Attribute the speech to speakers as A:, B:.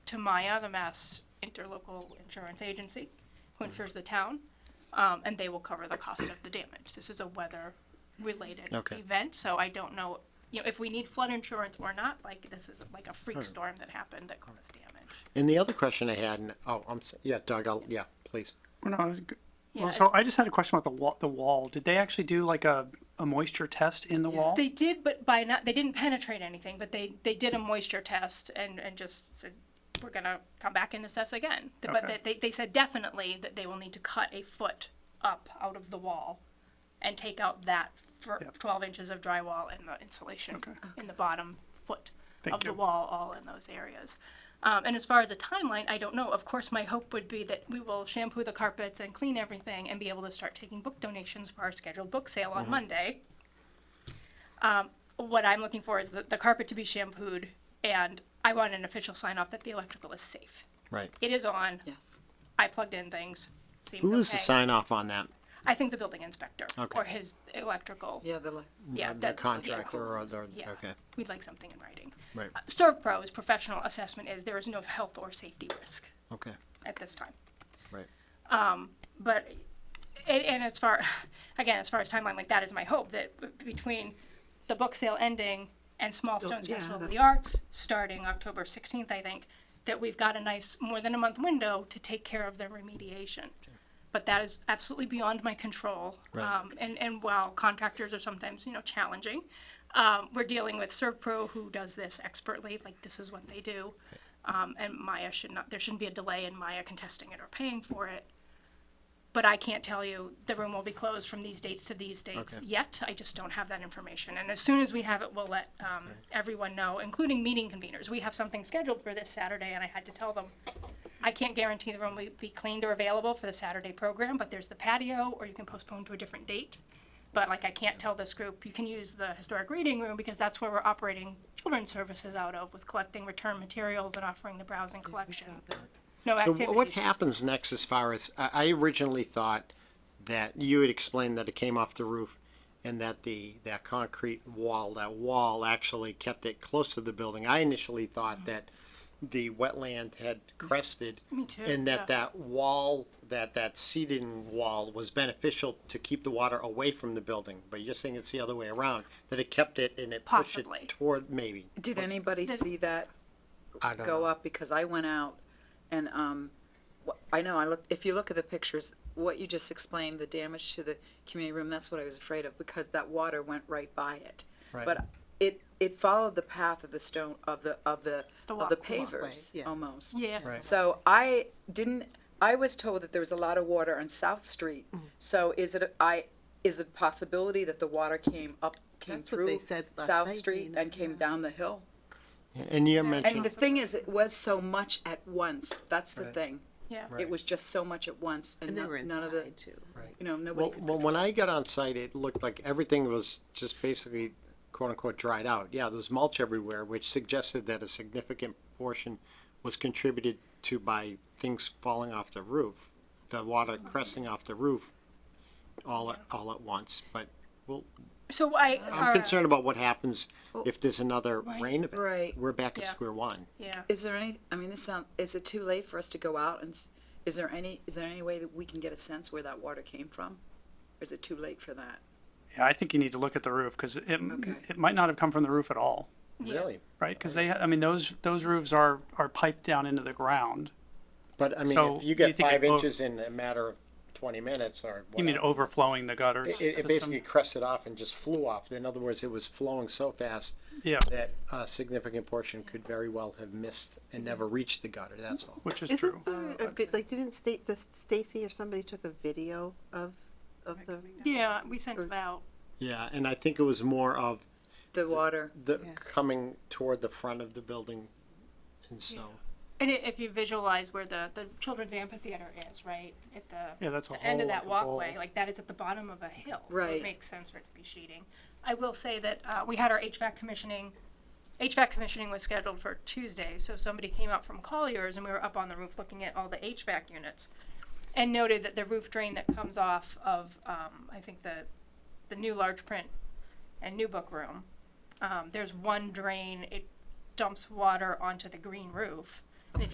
A: to Maya, the Mass Interlocal Insurance Agency, who insures the town, um, and they will cover the cost of the damage. This is a weather-related
B: Okay.
A: event, so I don't know, you know, if we need flood insurance or not. Like this is like a freak
B: Sure.
A: storm that happened that caused damage.
B: And the other question I had, and, oh, I'm, s- yeah, Doug, I'll, yeah, please.
C: Well, no, I was g-
A: Yeah,
C: well, so
A: it's-
C: I just had a question about the wall. The wall. Did they actually do like a, a moisture test in the wall?
A: They did, but by not, they didn't penetrate anything, but they, they did a moisture test and, and just said, we're gonna come back and assess again. Th- But
C: Okay.
A: that they, they said definitely that they will need to cut a foot up out of the wall and take out that for
C: Yep.
A: twelve inches of drywall and the insulation
C: Okay.
A: in the bottom foot
C: Thank
A: of the
C: you.
A: wall, all in those areas. Um, and as far as a timeline, I don't know. Of course, my hope would be that we will shampoo the carpets and clean everything and be able to start taking book donations for our scheduled book sale
C: Mm-hmm.
A: on Monday Um, what I'm looking for is the, the carpet to be shampooed, and I want an official sign off that the electrical is safe.
B: Right.
A: It is on.
D: Yes.
A: I plugged in things. Seems
B: Who
A: okay.
B: is the sign off on that?
A: I think the building inspector
B: Okay.
A: or his electrical.
D: Yeah, the,
A: yeah,
B: The
A: that-
B: contractor
A: yeah.
B: or, the
A: Yeah.
B: okay,
A: We'd like something in writing.
B: right,
A: Uh, ServPro's professional assessment is there is no health or safety risk
B: okay,
A: at this time.
B: right.
A: but and, and as far again as far as timeline like that is my hope that b- between the book sale ending and small stones
D: yeah,
A: festival of
D: that's-
A: the arts starting october 16th i think that we've got a nice more than a month window to take care of the remediation but that is absolutely beyond my control
B: Right.
A: um, and, and while contractors are sometimes you know challenging um, we're dealing with servpro who does this expertly like this is what they do um, and maya should not there shouldn't be a delay in maya contesting it or paying for it but I can't tell you the room will be closed from these dates to these dates
B: Okay.
A: yet. I just don't have that information. And as soon as we have it, we'll let um, everyone know, including meeting conveners. We have something scheduled for this Saturday, and I had to tell them, I can't guarantee the room will be cleaned or available for the Saturday program, but there's the patio, or you can postpone to a different date. But like, I can't tell this group, you can use the historic reading room because that's where we're operating children's services out of with collecting return materials and offering the browsing collection. No
B: So wh- what
A: activities.
B: happens next as far as, I, I originally thought that you had explained that it came off the roof and that the, that concrete wall, that wall actually kept it close to the building. I initially thought that the wetland had crested.
A: Mm-hmm. Me too,
B: And
A: yeah.
B: that that wall, that, that seeding wall was beneficial to keep the water away from the building. But you're saying it's the other way around, that it kept it and it pushed it
A: Possibly.
B: toward, maybe.
D: Did anybody
A: Does-
D: see that
B: I don't
D: go
B: know.
D: up? Because I went out and, um, wh- I know, I looked, if you look at the pictures, what you just explained, the damage to the community room, that's what I was afraid of because that water went right by it.
B: Right.
D: But it, it followed the path of the stone, of the, of the,
A: The
D: of the
A: walk- the walkway,
D: pavers,
E: yeah.
D: almost.
A: Yeah.
B: Right.
D: So I didn't, I was told that there was a lot of water on South Street.
E: Mm.
D: So is it, I, is it a possibility that the water came up, came
E: That's what they
D: through
E: said last
D: South
E: night,
D: Street
E: Dana,
D: and came
E: yeah.
D: down the hill?
B: And you
D: And
B: mentioned,
D: the thing is, it was so much at once. That's the
B: Right.
D: thing.
A: Yeah.
B: Right.
D: It was just so much at once and
E: And they
D: no-
E: were
D: none of the,
E: inside too.
D: you know,
B: well,
D: nobody
B: well,
D: could.
B: when I got on site, it looked like everything was just basically quote unquote dried out. Yeah, there was mulch everywhere, which suggested that a significant portion was contributed to by things falling off the roof, the water cresting off the roof all, at- all at once. But well,
A: So I.
B: I'm
A: our-
B: concerned about what happens if there's another
A: Right.
B: rain event.
D: Right.
B: We're back at
A: Yeah.
B: square one.
A: Yeah.
D: Is there any, I mean, this sound, is it too late for us to go out and, s- is there any, is there any way that we can get a sense where that water came from? Or is it too late for that?
C: Yeah, I think you need to look at the roof because it
D: Okay.
C: it might not have come from the roof at all,
A: Yeah.
B: Really?
C: right? Because they, I mean, those those roofs are are piped down into the ground.
B: But I mean,
C: So
B: if you
C: you
B: get
C: think it
B: five
C: o-
B: inches in a matter of twenty minutes or
C: You mean
B: whatever.
C: overflowing the gutters?
B: It, it
C: system?
B: basically crested off and just flew off. In other words, it was flowing so fast
C: yeah,
B: that a significant portion could very well have missed and never reached the gutter, that's all.
C: which is true.
E: Isn't there a good, like, didn't Sta- does Stacy or somebody took a video of, of the,
A: Yeah, we sent it out.
B: Yeah, and I think it was more of
D: The water,
B: the,
E: Yeah.
B: coming toward the front of the building, and so.
A: And i if you visualize where the, the children's amphitheater is, right, at the,
C: Yeah, that's a
A: the end of
C: whole
A: that
C: like a bowl.
A: walkway, like that is at the bottom of a hill. so It
D: Right.
A: makes sense for it to be sheeting. I will say that, uh, we had our HVAC commissioning, HVAC commissioning was scheduled for Tuesday, so somebody came out from Collier's and we were up on the roof looking at all the HVAC units. And noted that the roof drain that comes off of, um, I think the, the new large print and new book room, um, there's one drain, it dumps water onto the green roof.